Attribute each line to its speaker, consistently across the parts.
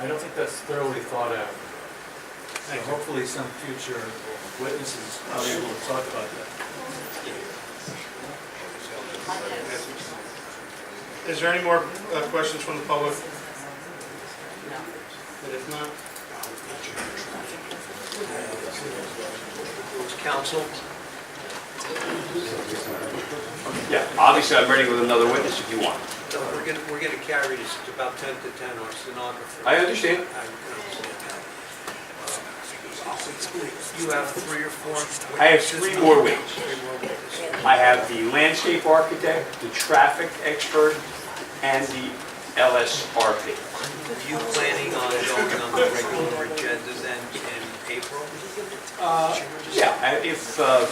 Speaker 1: I don't think that's thoroughly thought out. So
Speaker 2: Thank you.
Speaker 1: hopefully some future witnesses are able to talk about that.
Speaker 2: Is there any more uh, questions from the public? And if not,
Speaker 3: Council?
Speaker 4: Yeah, obviously, I'm ready with another witness if you want.
Speaker 3: No, we're gonna, we're gonna carry this to about 10 to 10, our stenographer.
Speaker 4: I
Speaker 3: I
Speaker 4: understand.
Speaker 3: can understand that. You have three or four?
Speaker 4: I have three more witnesses.
Speaker 3: Three more witnesses.
Speaker 4: I have the landscape architect, the traffic expert, and the LSRP.
Speaker 3: Are you planning on going on the regular agenda then in April?
Speaker 4: Uh, Yeah, I- if, uh,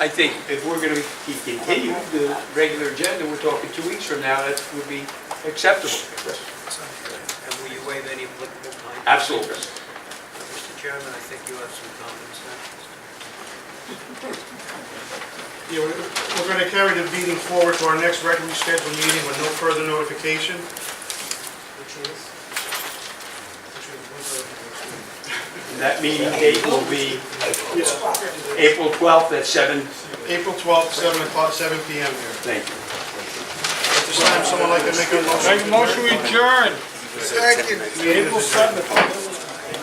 Speaker 4: I think if we're going to continue the regular agenda, we're talking two weeks from now, that would be acceptable.
Speaker 3: And will you waive any applicable time?
Speaker 4: Absolutely.
Speaker 3: Mr. Chairman, I think you have some comments now.
Speaker 2: yeah, we're we're going to carry the meeting forward to our next regularly scheduled meeting with no further notification.
Speaker 3: Which is?
Speaker 4: That meeting date will be April 12th at 7.
Speaker 2: April 12th, 7 o'clock, 7 PM here.
Speaker 4: Thank you.
Speaker 2: At this time, someone like to make a motion? Make motion adjourn. Second. April 7th.